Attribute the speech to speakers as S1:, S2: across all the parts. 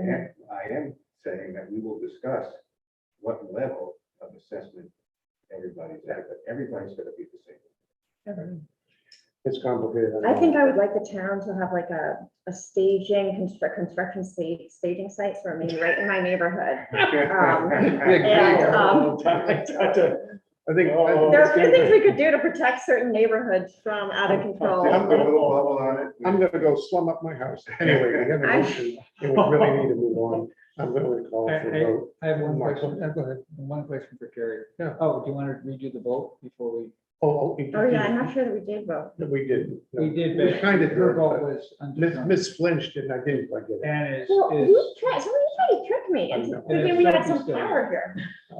S1: am, I am saying that we will discuss what level of assessment everybody's at, but everybody's gonna be the same.
S2: It's complicated.
S3: I think I would like the town to have like a, a staging, construct, construction sta- staging sites for me right in my neighborhood. And, um, Oh,
S2: I think.
S3: There are a few things we could do to protect certain neighborhoods from out of
S1: Oh, I'm
S3: control.
S1: gonna little bubble on it.
S2: I'm gonna go slum up my house. Anyway, we have a
S3: I-
S2: motion, and we really need to move on. I'm gonna call for a vote.
S4: I have one
S2: Mark.
S4: question, uh, go ahead, one question for Carrie.
S2: Yeah.
S4: Oh, do you want to redo the vote before we?
S3: Oh,
S2: Oh, oh,
S3: yeah, I'm
S2: we-
S3: not sure that we did vote.
S2: we didn't. no.
S4: We did,
S2: We
S4: but
S2: kind of
S4: your
S2: did,
S4: vote
S2: but
S4: was
S2: Miss,
S4: undetermined.
S2: Miss Flinch didn't, I didn't, I get it.
S4: And is,
S3: Well,
S4: is,
S3: you tried, somebody tried to trick me
S2: I
S3: into
S2: know.
S3: thinking we had some power here.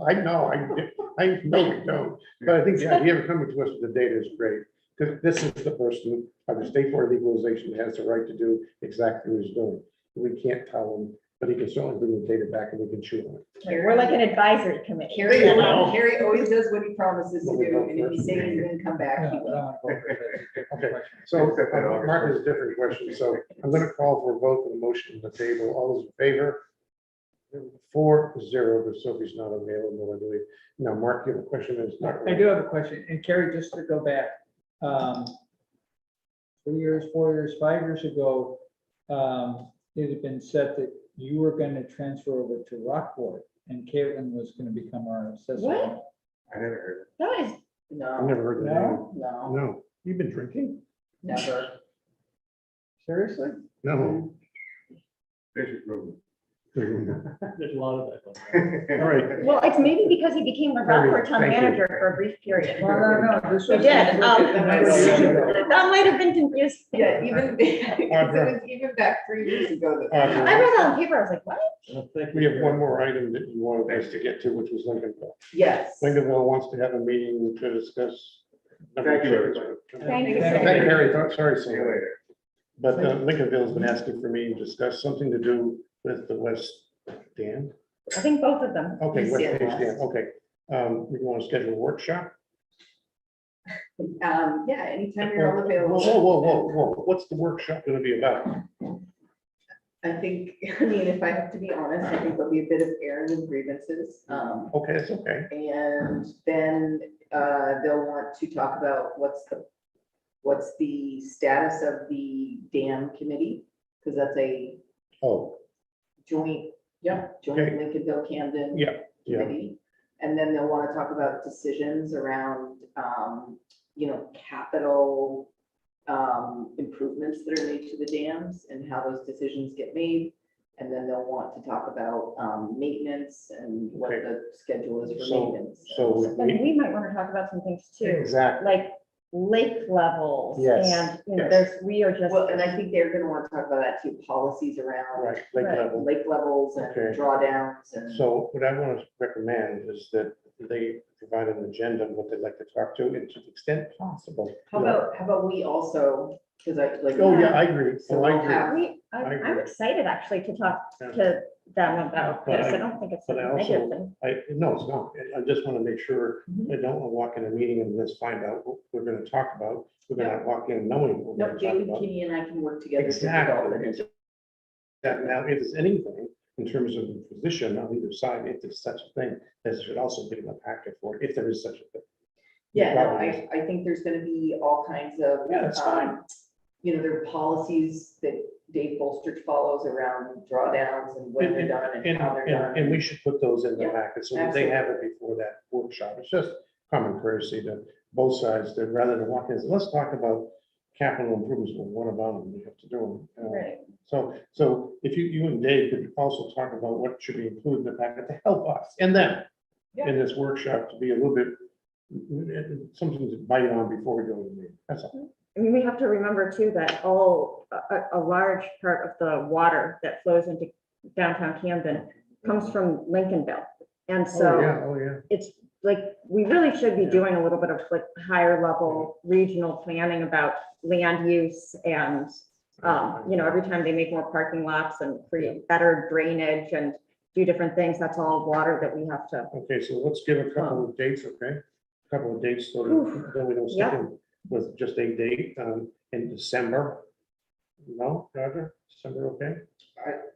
S2: I know, I, did- I know we don't, but I think the idea of coming to us with the data is great. Because this is the person of the state board of equalization that has the right to do exactly what he's doing. We can't tell him, but he can certainly bring the data back and we can chew on it.
S3: We're like an advisory committee.
S5: Carrie,
S2: There you go.
S5: Carrie always does what he promises to do, and if he says he's gonna come
S4: yeah,
S5: back,
S4: but I
S5: he will.
S4: want to vote for that.
S2: Okay.
S4: Question.
S2: So uh,
S1: Except that August
S2: Mark has a
S1: first.
S2: different question, so I'm gonna call for a vote on the motion on the table. All those in favor? Four, zero, because Sophie's not available, I believe. Now, Mark, you have a question that's not.
S4: I do have a question, and Carrie, just to go back, um, three years, four years, five years ago, um, it had been said that you were gonna transfer over to Rockport, and Caitlin was gonna become our assessor.
S3: What?
S1: I never heard
S3: That is,
S2: I've
S5: No,
S2: never heard of that.
S4: No?
S5: no,
S2: No, you've been drinking?
S5: never.
S4: Seriously?
S2: No.
S1: it. There's your room.
S2: All
S6: There's a lot of that.
S2: right.
S3: well, it's maybe because he became a
S2: Very,
S3: Rockport town
S2: thank you.
S3: manager for a brief period.
S4: No, no, no, this
S3: We
S4: was.
S3: did, Oh, um, that
S4: Yeah.
S3: might have been confusing.
S5: Yeah, even, it was even back three years ago that.
S2: Audra.
S3: I read that on paper, I was like, what?
S2: We have one more item that you wanted us to get to, which was Lincolnville.
S5: Yes.
S2: Lincolnville wants to have a meeting to discuss.
S1: Thank you, everybody.
S3: Thank you,
S2: Thank you,
S3: sir.
S2: Harry. Sorry,
S1: See you
S2: Sam.
S1: later.
S2: But uh, Lincolnville's been asking for me to discuss something to do with the West Dam.
S3: I think both of them.
S2: Okay,
S5: East
S2: West
S5: Dam
S2: Page Dam,
S5: West.
S2: okay. Um, We want to schedule a workshop?
S5: Um, yeah, anytime you're all
S2: Whoa,
S5: available.
S2: whoa, whoa, whoa, whoa. What's the workshop going to be about?
S5: I think, I mean, if I have to be honest, I think there'll be a bit of errand and grievances. Um,
S2: Okay, it's okay.
S5: and then, uh, they'll want to talk about what's the, what's the status of the dam committee? Because that's a
S2: Oh,
S5: joint, yeah, joint
S2: Okay.
S5: Lincolnville Camden.
S2: Yeah, yeah.
S5: Committee. And then they'll want to talk about decisions around, um, you know, capital um, improvements that are made to the dams and how those decisions get made. And then they'll want to talk about, um, maintenance and what
S2: Okay.
S5: the schedule is for
S2: So-
S5: maintenance.
S2: so
S3: But
S2: we,
S3: we might want to talk about some things too,
S2: exactly.
S3: like lake levels
S2: Yes,
S3: and, you know,
S2: yes.
S3: there's, we are just.
S5: Well, and I think they're gonna want to talk about that too, policies around
S2: Right, lake
S3: Right.
S2: level.
S5: lake levels and
S2: Okay.
S5: drawdowns and.
S2: So what I want to recommend is that they provide an agenda of what they'd like to talk to and to the extent possible.
S5: How about, how about we also, because I like.
S2: Oh, yeah, I agree. Oh, I agree.
S3: Yeah, we, I-
S2: I
S3: I'm
S2: agree.
S3: excited actually to talk
S2: Yeah.
S3: to them about
S2: But
S3: this.
S2: I-
S3: I don't think it's a
S2: but I also-
S3: negative thing.
S2: I, no, it's not. I- I just want to make sure,
S5: Mhm.
S2: I don't want to walk in a meeting and just find out what we're going to talk about. We're going to walk in knowing what
S5: No,
S2: we're going
S5: Jamie
S2: to talk about.
S5: Kinney and I can work together. to develop an
S2: Exactly. That now, if there's anything in terms of the position on either side, if there's such a thing, this should also be in the packet for, if there is such a thing.
S5: Yeah, no, I,
S2: Probably.
S5: I think there's gonna be all kinds of.
S2: Yeah, that's fine.
S5: um, You know, there are policies that Dave Bolstrich follows around drawdowns and when they're done and
S2: And,
S5: how they're
S2: and,
S5: done.
S2: and we should put those in the
S5: Yeah,
S2: packet, so that they have it before that workshop, it's just common courtesy to both sides, that rather than walk in, let's talk about capital improvements, well, what about them, we have to do them. Uh,
S3: Right.
S2: So, so if you, you and Dave could also talk about what should be included in the packet to help us and them in this workshop to be a little bit, something to bite on before we go to the meeting, that's all.
S3: I mean, we have to remember too that all, a, a- a large part of the water that flows into downtown Camden comes from Lincolnville. And so
S2: oh, yeah.
S3: it's like, we really should be doing a little bit of like higher level
S2: Mm-hmm.
S3: regional planning about land use and um, you know, every time they make more parking lots and create better drainage and do different things, that's all water that we have to.
S2: Okay, so let's give a couple of dates, okay? Couple of dates, so that
S3: Oof.
S2: then we don't stick in with just a date, um, in December. No, Roger, December, okay?